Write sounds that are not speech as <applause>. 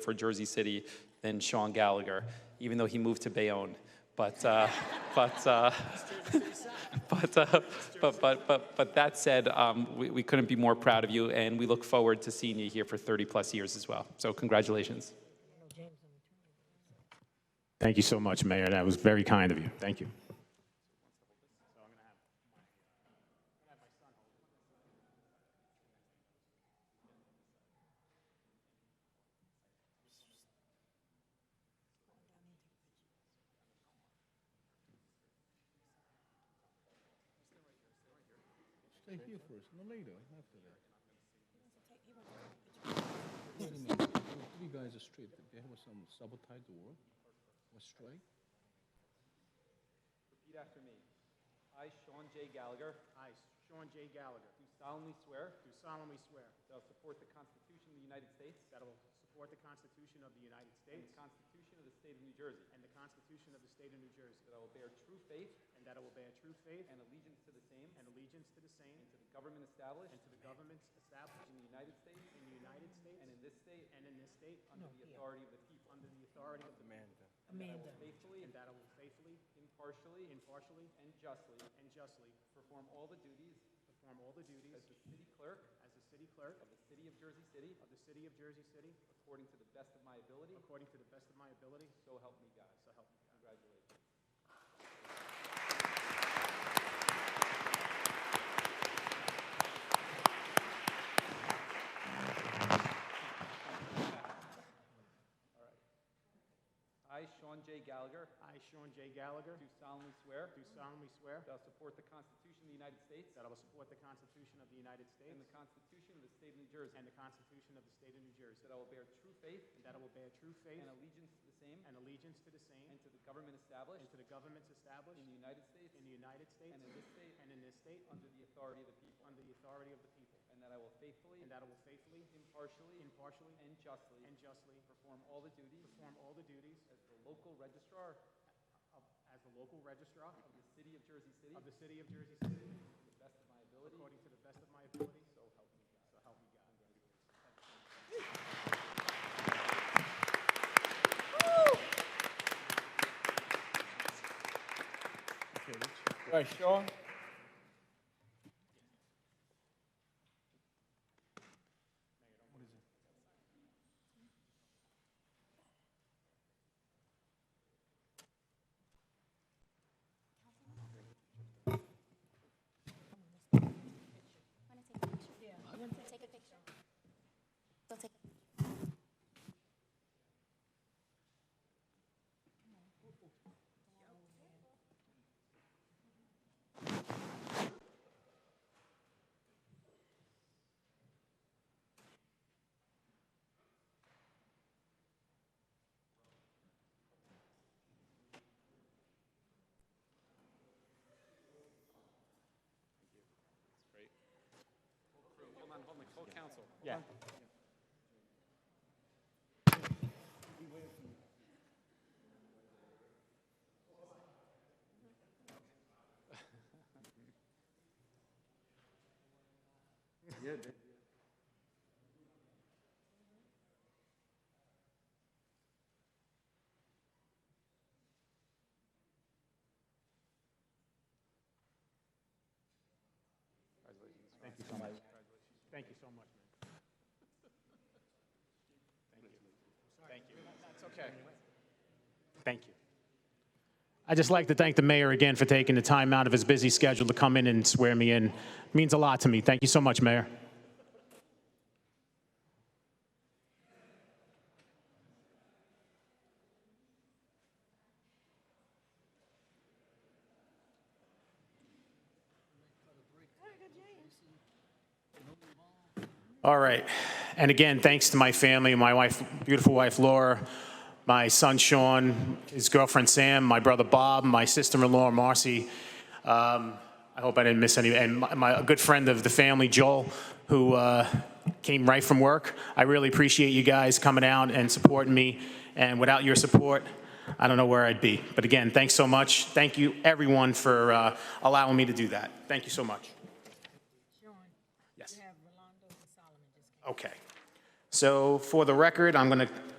for Jersey City than Sean Gallagher, even though he moved to Bayonne. But, uh, <laughs> but, uh, <laughs> but, uh, but, but, but, but that said, um, we, we couldn't be more proud of you, and we look forward to seeing you here for 30 plus years as well. So, congratulations. Thank you so much, Mayor. That was very kind of you. Thank you. Take you first, and then later, after that. Wait a minute, there were three guys are straight, did they have some sabotage the work, or strike? Repeat after me. I, Sean J. Gallagher, I, Sean J. Gallagher, do solemnly swear do solemnly swear that I will support the Constitution of the United States that I will support the Constitution of the United and States the Constitution of the State of New Jersey, and the Constitution of the State of New Jersey, that I will bear true faith and that I will bear true faith and allegiance to the same and allegiance to the same and to the government established and to the governments established in the United States in the United States and in this state and in this state under the authority of the people. under the authority of the people, Amanda. I will faithfully, and that I will faithfully, impartially, impartially, and justly and justly perform all the duties perform all the duties as the city clerk as the city clerk of the City of Jersey City of the City of Jersey City according to the best of my ability, according to the best of my ability, so help me God. so help me God. Congratulations. All right. I, Sean J. Gallagher, I, Sean J. Gallagher, do solemnly swear do solemnly swear that I will support the Constitution of the United States that I will support the Constitution of the United States and the Constitution of the State of New Jersey, and the Constitution of the State of New Jersey, that I will bear true faith and that I will bear true faith and allegiance to the same and allegiance to the same and to the government and established to the governments established in the United States in the United States and in this state and in this state under the authority of the people, under the authority of the people, and that I will faithfully, and that I will faithfully, impartially, impartially, and justly and justly perform all the duties perform all the duties as the local registrar of- as the local registrar of the City of Jersey City of the City of Jersey City to the best of my ability, according to the best of my ability, so help me God. so help me God. All right, Sean. Want to take a picture? Yeah. Take a picture. They'll take. Hold on, hold on, full council. Yeah. Thank you so much. Thank you so much, man. Thank you. Thank you. That's okay. Thank you. I'd just like to thank the mayor again for taking the time out of his busy schedule to come in and swear me in. Means a lot to me. Thank you so much, Mayor. All right. And again, thanks to my family, my wife, beautiful wife Laura, my son Sean, his girlfriend Sam, my brother Bob, my sister-in-law Marcy. Um, I hope I didn't miss any. And my, my a good friend of the family, Joel, who uh, came right from work. I really appreciate you guys coming out and supporting me. And without your support, I don't know where I'd be. But again, thanks so much. Thank you, everyone, for uh, allowing me to do that. Thank you so much. Sean, Yes. you have Rolando and Solomon just came. Okay. So for the record, I'm going to